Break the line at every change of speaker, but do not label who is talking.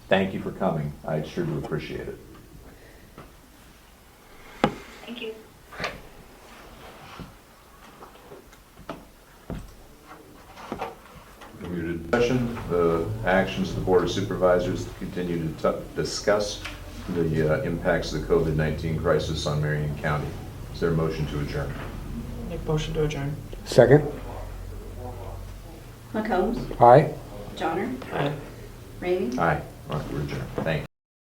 Thank you for coming. I sure do appreciate it.
Thank you.
Your discussion, the actions of the Board of Supervisors to continue to tu- discuss the uh, impacts of the COVID-19 crisis on Marion County. Is there a motion to adjourn?
Make motion to adjourn.
Second,
McCombs?
aye?
Johnner?
Aye.
Ramey?
Aye. All right, we're adjourned. Thank you.